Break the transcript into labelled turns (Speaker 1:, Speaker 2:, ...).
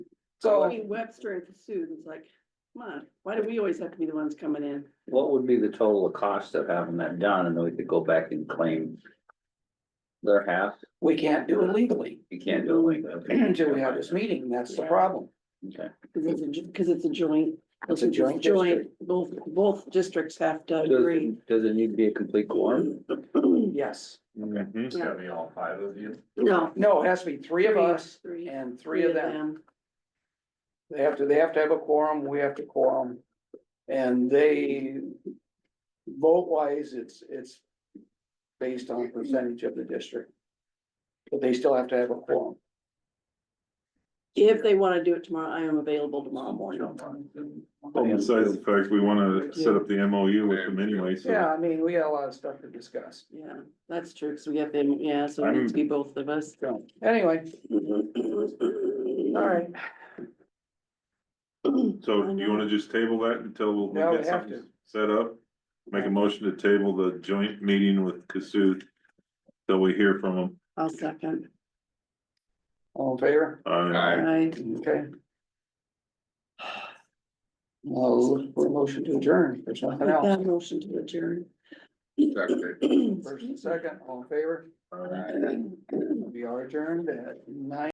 Speaker 1: So-
Speaker 2: I mean, Webster and Cassuth is like, come on, why do we always have to be the ones coming in?
Speaker 3: What would be the total cost of having that done? And then we could go back and claim their half.
Speaker 1: We can't do it legally
Speaker 3: You can't do it like that.
Speaker 1: until we have this meeting. That's the problem.
Speaker 3: Okay.
Speaker 2: Cause it's a, ju- cause it's a joint.
Speaker 1: It's a joint
Speaker 2: Both, both districts have to
Speaker 3: Does
Speaker 2: agree.
Speaker 3: it, does it need to be a complete quorum?
Speaker 1: Yes. Mm-hmm.
Speaker 4: It's
Speaker 2: Yeah.
Speaker 4: gotta be all five of you.
Speaker 2: No.
Speaker 1: No, it has to be three of us
Speaker 2: Three,
Speaker 1: and three of them. They have to, they have to have a quorum, we have to quorum. And they, vote wise, it's, it's based on percentage of the district. But they still have to have a quorum.
Speaker 2: If they wanna do it tomorrow, I am available tomorrow morning.
Speaker 4: Well, besides the fact, we wanna set up the MOU with them anyway, so.
Speaker 1: Yeah, I mean, we got a lot of stuff to discuss.
Speaker 2: Yeah, that's true, cause we have them, yeah, so it needs to be both of us.
Speaker 1: So, anyway, all right,
Speaker 4: So do you wanna just table that until we'll
Speaker 1: Yeah, we
Speaker 4: we'll get
Speaker 1: have
Speaker 4: something set up? Make a motion to table the joint meeting with Cassuth. Till we hear from them.
Speaker 2: I'll second.
Speaker 1: all in favor?
Speaker 4: Uh,
Speaker 2: I,
Speaker 1: Okay. I'll look for a motion to adjourn, there's nothing else.
Speaker 2: that motion to adjourn.
Speaker 1: First and second, all in favor? We are adjourned at nine.